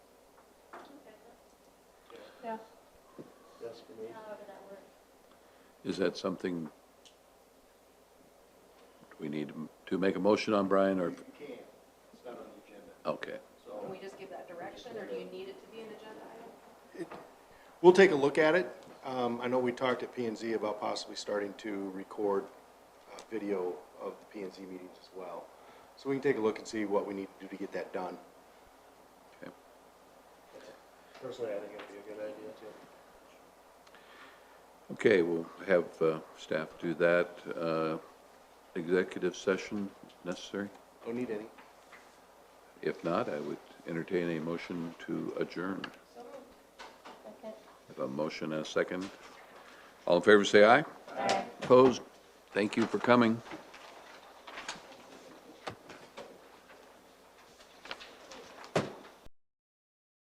Yeah. estimate. however that works. Is that something we need to make a motion on, Brian, or, You can, it's not on the agenda, okay. so. Can we just give that direction, or do you need it to be an agenda item? We'll take a look at it. Um, I know we talked at P and Z about possibly starting to record uh, video of the P and Z meetings as well. So we can take a look and see what we need to do to get that done. Okay. Personally, I think it'd be a good idea too. Okay, we'll have uh, staff do that. Uh, Executive session necessary? Don't need any. If not, I would entertain a motion to adjourn. Second. Have a motion and a second. All in favor, say aye. Aye. Opposed? Thank you for coming.